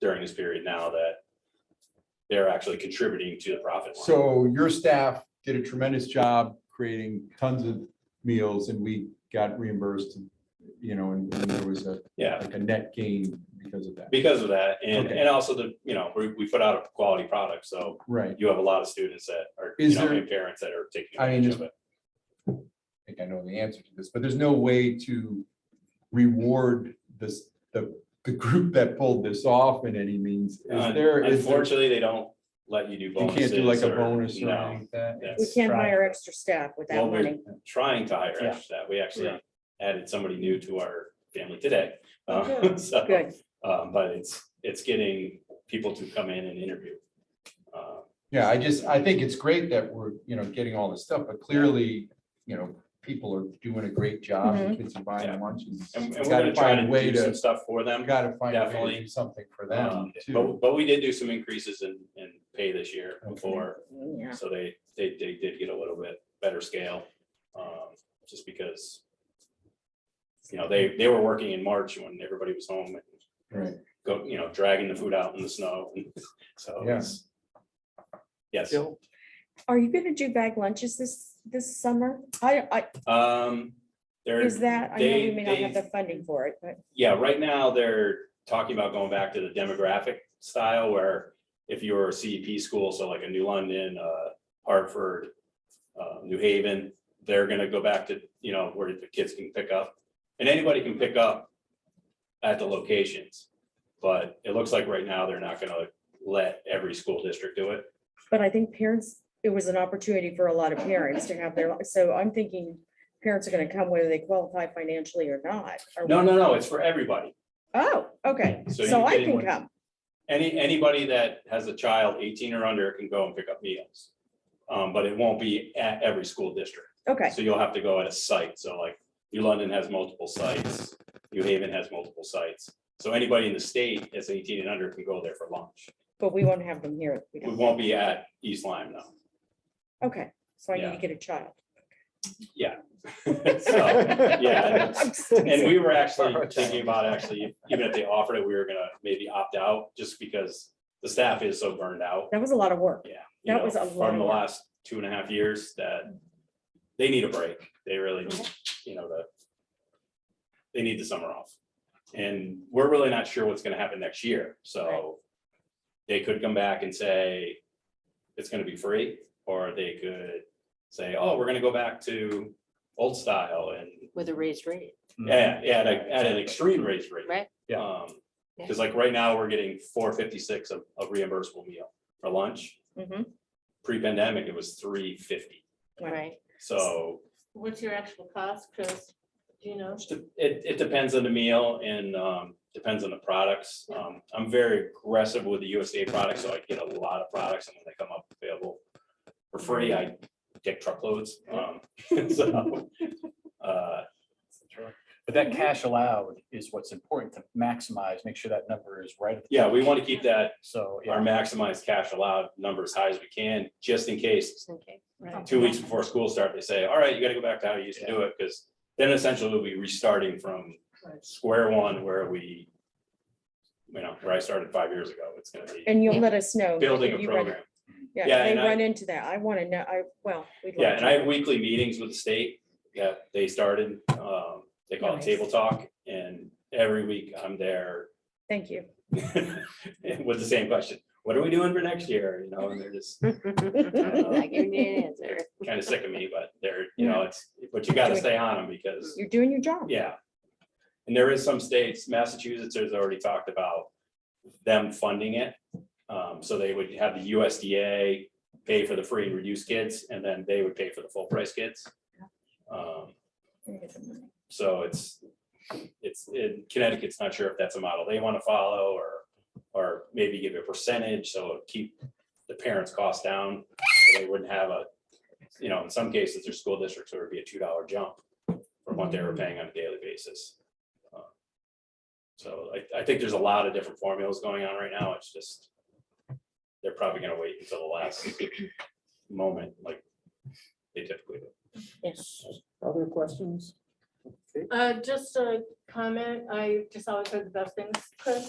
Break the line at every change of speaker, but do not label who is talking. during this period now that they're actually contributing to the profit. line.
So your staff did a tremendous job creating tons of meals and we got reimbursed, you know, and and there was a,
Yeah,
like a net gain because of that.
because of that, and,
Okay.
and also the, you know, we, we put out a quality product, so
Right.
you have a lot of students that are,
Is
you know,
there-
and parents that are taking
I mean,
advantage
is-
of it.
I think I know the answer to this, but there's no way to reward this, the, the group that pulled this off in any means. Is
Un-
there, is there, you
Unfortunately, they don't let you do bonuses.
can't do like a
or-
bonus or
no,
anything like that?
that's-
We can't
right.
hire extra staff with that
Well, we're-
money.
trying to hire
Yeah.
extra staff. We actually
Yeah.
added somebody new to our family today.
Oh,
Um,
good.
so,
Good.
um, but it's, it's getting people to come in and interview. Uh,
Yeah, I just, I think it's great that we're, you know, getting all this stuff, but clearly, you know, people are doing a great job. The Kids are buying lunches.
And and
We've
we're
got
gonna
to
try
find a
to
way
do some
to,
stuff for them.
we've got to find a way to
Definitely.
do something for
Um,
them too.
But, but we did do some increases in, in pay this year
Okay.
before,
Yeah.
so they, they, they did get a little bit better scale. um, Just because, you know, they, they were working in March when everybody was home and
Right.
go, you know, dragging the food out in the snow. So
Yeah.
it's. Yes,
Bill,
Are you gonna do bag lunches this, this summer? I,
um,
I,
there,
is that, I know
they-
we may not have
they-
the funding for it, but
yeah, right now they're talking about going back to the demographic style where if you're a CEP school, so like a New London, uh, Hartford, uh, New Haven, they're gonna go back to, you know, where the kids can pick up. And anybody can pick up at the locations. But it looks like right now they're not gonna let every school district do it.
But I think parents, it was an opportunity for a lot of parents to have their, so I'm thinking parents are gonna come whether they qualify financially or not. or-
No, no, no, it's for everybody.
Oh, okay,
So
so
you're
I
getting
can
one-
come.
Any, anybody that has a child eighteen or under can go and pick up meals. Um, but it won't be at every school district.
Okay,
So you'll have to go at a site. So like New London has multiple sites, New Haven has multiple sites. So anybody in the state that's eighteen and under can go there for lunch.
but we won't have them here. We
We
don't-
won't be at East Lyme
Okay, so I need
Yeah.
to get a child.
though. So, Yeah.
I'm just-
And we were actually thinking about actually, even if they offered it, we were gonna maybe opt out just because the staff is so burned out.
That was a lot of work.
Yeah. you
That
know,
was a lot
From the
of work.
last two and a half years that they need a break. They really, need, you know, the, they need the summer off. And we're really not sure what's gonna happen next year, so they could come back and say it's gonna be free, or they could say, oh, we're gonna go back to old style and,
with a raised rate.
Mm-hmm.
yeah, yeah, at, a- at an extreme raise rate.
Right.
Yeah.
Because like right now, we're getting four fifty-six of of reimbursable meal for lunch
Mhm.
pre-pandemic, it was three fifty.
Right.
So
What's your actual cost, Chris? Do you know?
it, it depends on the meal and um, depends on the products. Um, I'm very aggressive with the USDA products, so I get a lot of products and when they come up available for free, I get truckloads. Um, So, uh,
Sure. But that cash allowed is what's important to maximize, make sure that number is right. at the
yeah,
top.
we want to keep that,
So,
our
yeah,
maximized cash allowed number as high as we can, just in case
Just in case.
two weeks before school start, they say, all right, you gotta go back to how you used to do it, because then essentially we'll be restarting from square one where we, you know, where I started five years ago, it's gonna be
And you'll let us know.
building
if
a
you run-
program.
Yeah,
Yeah,
they
and I-
run into that. I want to know, I, well. we'd
Yeah,
like
and
to.
I have weekly meetings with the state, yeah, they started, um, they call it
Nice.
table talk, and every week I'm there
Thank you.
with the same question, what are we doing for next year, you know, and they're just
Oh. Not giving you an answer.
kind of sick of me, but they're, you know, it's, but you gotta stay on them because
You're doing your job.
Yeah. And there is some states, Massachusetts has already talked about them funding it. Um, so they would have the USDA pay for the free and reduced kids, and then they would pay for the full price kids. Um, so it's, it's, in Connecticut's not sure if that's a model they want to follow or, or maybe give a percentage, so it'll keep the parents' costs down. so They wouldn't have a, you know, in some cases, there's school districts where it'd be a two dollar jump from what they were paying on a daily basis. Uh, So I, I think there's a lot of different formulas going on right now. It's just, they're probably gonna wait until the last moment, like they typically do.
Yes.
Other questions?
Uh, just a comment, I just always heard the best things, Chris.